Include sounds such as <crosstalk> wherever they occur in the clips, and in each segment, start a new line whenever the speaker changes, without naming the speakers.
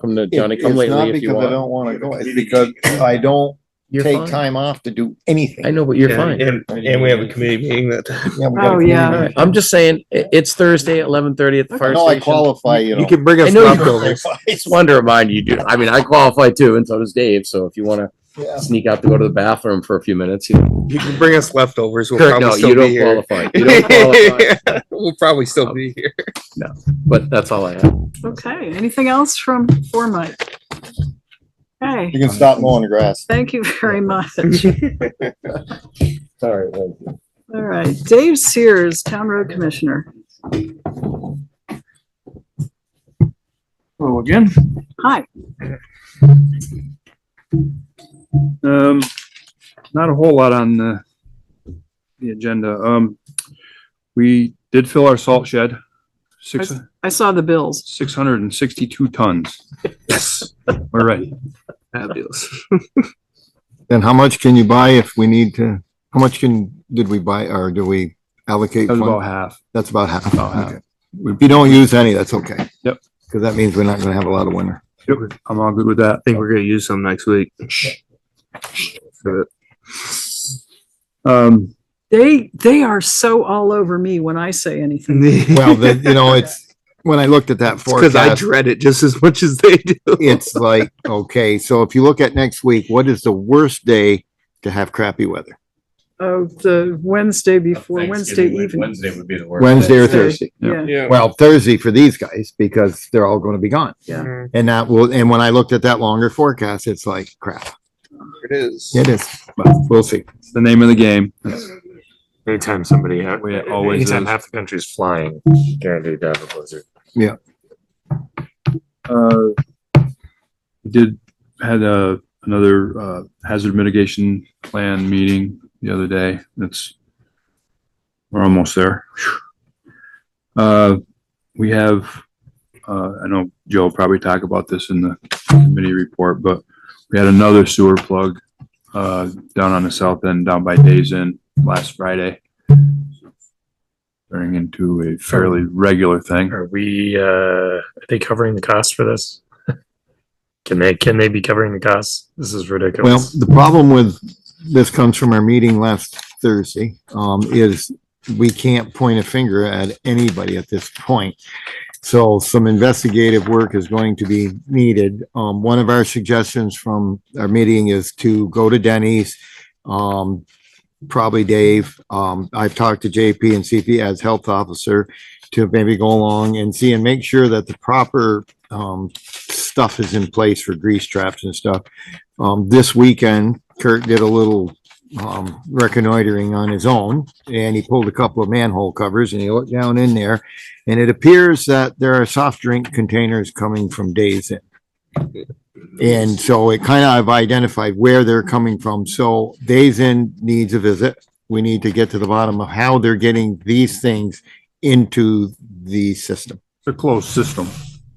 Come to
It-
Johnny come
it's not
lately if you
Because I
want.
don't wanna go, it's because I don't
You're
take
fine.
time off to do
I
anything.
know, but you're
Yeah,
fine.
And, and we have a committee meeting that time.
Yeah, we gotta
Oh,
clean it
yeah.
up.
Alright, I'm just saying, i- it's Thursday at eleven thirty at the fire
No, I
station.
qualify, you <laughs> know.
can bring
I know you
buildings.
Just wanted to remind you, dude. I mean, I qualify too, and so does Dave. So if you want to
Yeah.
sneak out to go to the bathroom for a few minutes, you know.
You can bring us leftovers. We'll
Kirk,
probably
no,
still
you
be
don't
here.
qualify. You
<laughs>
don't
<laughs>
qualify.
we'll probably still be here.
But that's all I have.
Okay, anything else from, for Mike? Okay,
You can stop mowing the grass.
thank you very much.
Sorry.
All right, Dave Sears, Town Road Commissioner.
Hello Oh, again.
Hi,
Um, not a whole lot on the, the agenda. Um, we did fill our salt shed, six,
I saw the bills.
six hundred and sixty-two tons. Yes. We're ready.
Fabulous.
Then how much can you buy if we need to, how much can, did we buy or do we allocate?
That was about
funds?
half.
That's about half.
About half.
Okay. If you don't use any, that's okay.
Yep.
Cause that means we're not gonna have a lot of winter.
I'm all good with that.
think we're gonna use some next week.
Um,
They, they are so all over me when I say anything.
Well, the, you know,
<laughs>
it's, when I looked at that
Because I
forecast,
dread it just as much as they do.
it's
<laughs>
like, okay, so if you look at next week, what is the worst day to have crappy weather?
Oh, the Wednesday before, Wednesday evening.
Wednesday would be the worst.
Wednesday or
Wednesday.
Thursday?
Yeah,
Well, Thursday for these guys because they're all gonna be gone.
Yeah.
And that will, and when I looked at that longer forecast, it's like crap.
It is.
It is, but we'll see.
it's the name of the game. That's
Anytime somebody,
the way it always
anytime
is.
half the country's flying, guaranteed to have a blizzard.
Uh, we did, had a, another, uh, hazard mitigation plan meeting the other day. That's, we're almost there. Uh, we have, uh, I know Joe will probably talk about this in the committee report, but we had another sewer plug, uh, down on the south end, down by Days Inn last Friday. Turning into a fairly regular thing.
Are we, uh, are they covering the cost for this? <laughs> Can they, can they be covering the costs? This is
Well,
ridiculous.
the problem with, this comes from our meeting last Thursday, um, is we can't point a finger at anybody at this point. So some investigative work is going to be needed. Um, one of our suggestions from our meeting is to go to Denny's. Um, probably Dave. Um, I've talked to JP and CP as health officer to maybe go along and see and make sure that the proper, um, stuff is in place for grease traps and stuff. Um, this weekend, Kurt did a little, um, reconnoitering on his own and he pulled a couple of manhole covers and he looked down in there. And it appears that there are soft drink containers coming from Days Inn. And so it kind of identified where they're coming from. So Days Inn needs a visit. We need to get to the bottom of how they're getting these things into the system.
It's a closed system.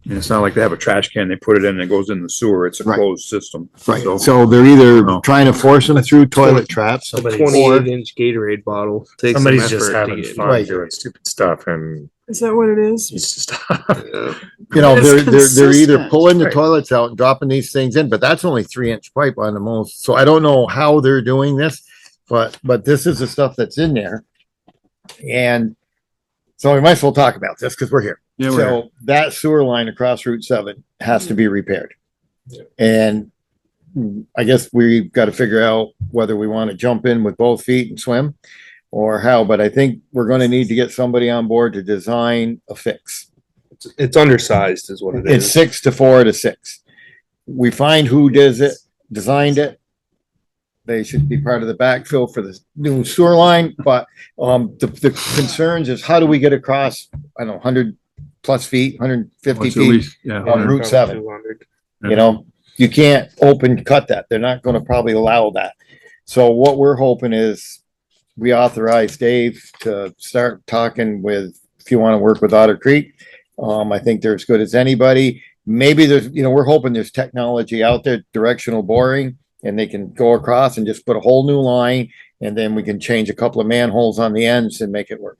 And it's not like they have a trash can, they put it in and it goes in the sewer. It's a
Right.
closed system. So-
So they're either trying to force them through toilet traps
Twenty-eight inch Gatorade bottle. Takes some
Somebody's just
effort to
having
get-
fun
Right.
doing stupid stuff and
Is that what it is?
needs to <laughs> stop.
Yeah.
You know,
It's
they're, they're, they're either
consistent.
pulling the
Right.
toilets out and dropping these things in, but that's only three inch pipe on the most, so I don't know how they're doing this. But, but this is the stuff that's in there. And so we might as well talk about this because we're here.
Yeah, we're-
So that sewer line across Route seven has to be repaired. And mm, I guess we've got to figure out whether we want to jump in with both feet and swim or how, but I think we're going to need to get somebody on board to design a fix.
It's- It's undersized is what it
It's
is.
six to four to six. We find who does it, designed it. They should be part of the backfill for the new sewer line, but, um, the, the concerns is how do we get across, I don't know, hundred plus feet, hundred fifty
it's at
feet,
least, yeah.
on Route seven.
200.
you know? You can't open cut that. They're not gonna probably allow that. So what we're hoping is we authorize Dave to start talking with, if you wanna work with Otter Creek. Um, I think they're as good as anybody. Maybe there's, you know, we're hoping there's technology out there, directional boring, and they can go across and just put a whole new line, and then we can change a couple of manholes on the ends and make it work.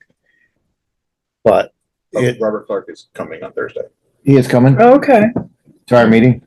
But it,
Robert Clark is coming on Thursday.
he is coming.
Okay,
to our meeting?